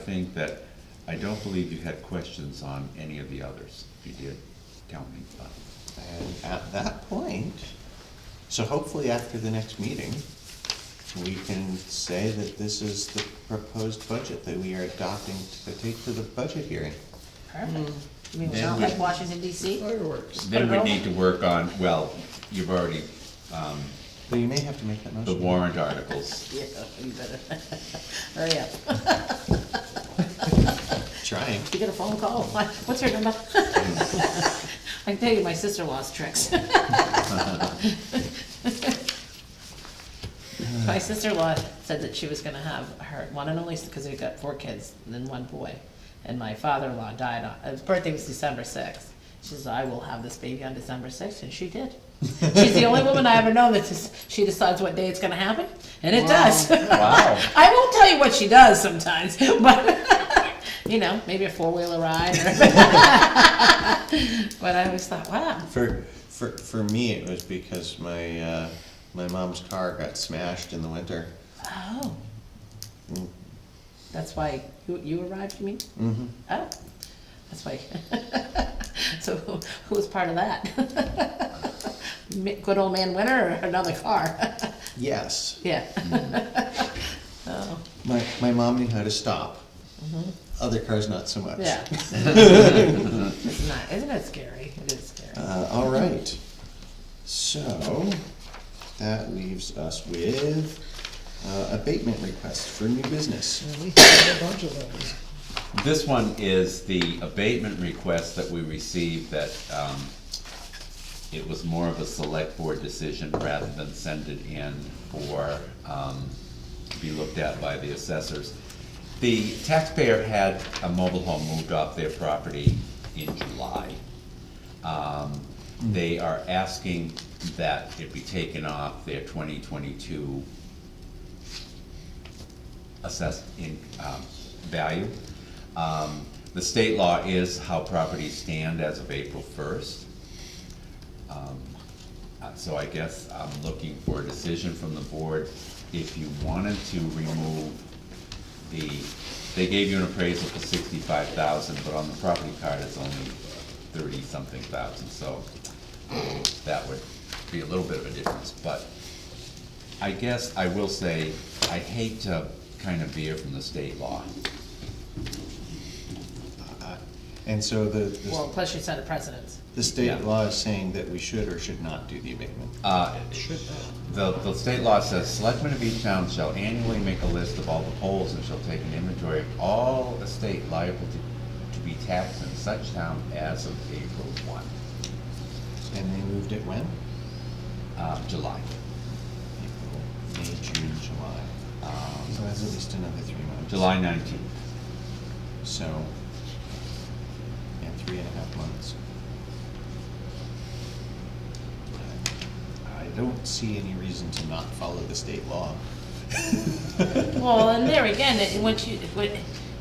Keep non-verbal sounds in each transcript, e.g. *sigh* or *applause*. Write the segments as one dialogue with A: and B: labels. A: think that, I don't believe you had questions on any of the others. If you did, tell me. but-
B: And at that point, so hopefully after the next meeting, we can say that this is the proposed budget that we are adopting to take to the budget hearing.
C: Perfect. I mean, we're
A: Then
C: not
A: we-
C: like Washington DC.
D: Fireworks.
A: Then we
C: Put it
A: need to work on, well, you've already, um,
B: But you may have to make that
A: the
B: motion.
A: warrant articles.
C: Yeah, you *laughs* better. Hurry up.
B: Trying.
C: You get a phone call. *laughs* Why- What's her number? I can tell you my sister-in-law's tricks. *laughs* My sister-in-law said that she was gonna have her, one and only, because we've got four kids and then one boy. And my father-in-law died on, his birthday was December sixth. She says, I will have this baby on December sixth, and she did. She's the only woman I ever know that just, she decides what day it's gonna happen, and it does.
A: Wow.
C: *laughs* I won't tell you what she does sometimes, *laughs* but you know, maybe a four
B: *laughs*
C: wheeler ride. Or but I always thought, wow,
B: For, for, for me, it was because my, uh, my mom's car got smashed in the winter.
C: oh, that's why you, you arrived. You mean?
B: Mm-hmm.
C: Oh, that's why. *laughs* so who, who was part of that? *laughs* Mi- Good old man winner or another car? *laughs*
B: Yes,
C: yeah.
B: Mm-hmm.
C: *laughs* Oh,
B: my, my mom knew how to stop. Other cars not so much. *laughs*
C: Yeah. it's not. Isn't it scary? It is scary.
B: Uh, all right. So, that leaves us with uh, abatement requests for new business.
D: And we have a bunch of those.
A: This one is the abatement request that we received that, um, it was more of a select board decision rather than send it in for, um, to be looked at by the assessors. The taxpayer had a mobile home moved off their property in July. Um, they are asking that it be taken off their twenty twenty-two assessed in, um, value. Um, the state law is how properties stand as of April first. Uh, So I guess I'm looking for a decision from the board. If you wanted to remove the, they gave you an appraisal for sixty-five thousand, but on the property card, it's only thirty-something thousand, so um, that would be a little bit of a difference, but I guess I will say, I hate to kind of veer from the state law.
B: Uh, And so the,
C: well,
B: the,
C: plus you set a precedence.
B: the
A: yeah.
B: state law is saying that we should or should not do the abatement.
A: Uh, The, the state law says, selectmen of each town shall annually make a list of all the poles and shall take an inventory of all estate liable to, to be taxed in such town as of April one,
B: And they moved it when?
A: uh, July.
B: April, May, June, July.
A: Um,
B: So that's at least another three months.
A: July nineteenth.
B: So, yeah, three and a half months. I don't see any reason to not follow the state law. *laughs*
C: Well, and there again, it, once you, when,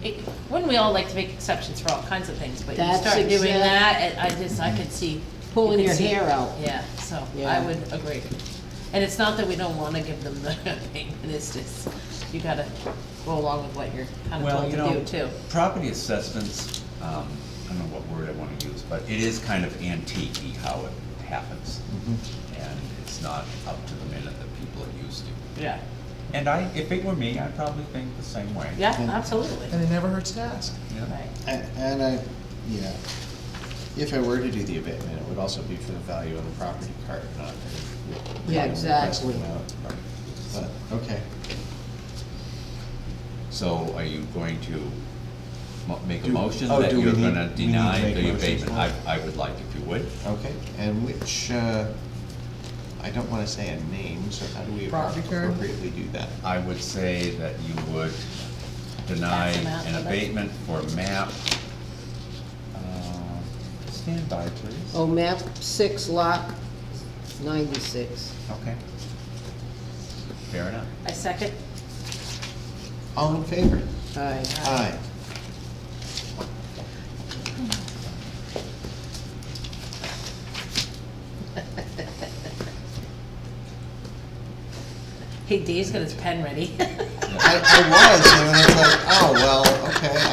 C: it, wouldn't we all like to make exceptions for all kinds of things, but you
E: That's
C: start doing
E: exact-
C: that, and I just, I could see.
E: Pulling
C: you could
E: your
C: see-
E: hair out.
C: Yeah, so I
E: Yeah.
C: would agree. And it's not that we don't wanna give them *laughs* the payment, it's just, you gotta go along with what you're kinda
A: Well,
C: told
A: you
C: to do
A: know,
C: too.
A: property assessments, um, I don't know what word I wanna use, but it is kind of antique how it happens.
B: Mm-hmm.
A: And it's not up to the minute that people are used to.
C: Yeah,
A: And I, if it were me, I'd probably think the same way.
C: yeah,
B: And-
C: absolutely.
D: And it never hurts to ask.
A: Yeah.
C: Right,
B: And, and I, yeah, if I were to do the abatement, it would also be for the value of the property card, not. the
E: Yeah,
B: request
E: exactly.
B: amount. But, okay,
A: So are you going to mo- make a
B: Do-
A: motion
B: oh,
A: that
B: do we
A: you're
B: need-
A: gonna
B: we need to
A: deny
B: make
A: the
B: motions
A: abatement?
B: now?
A: I, I would like if you would.
B: okay, and which, uh, I don't wanna say a name, so how do we
D: Property card?
B: appropriately do that?
A: I would say that you would deny
C: Pass them out,
A: an
C: but-
A: abatement for map. uh, Stand by, please.
E: Oh, map six, lot ninety-six.
A: Okay. Fair enough.
C: I second, *laughs*
B: All in favor?
E: Aye.
B: Aye.
C: hey, Dave's got his pen ready. *laughs*
B: I, I was, and then it's like, oh, well, okay,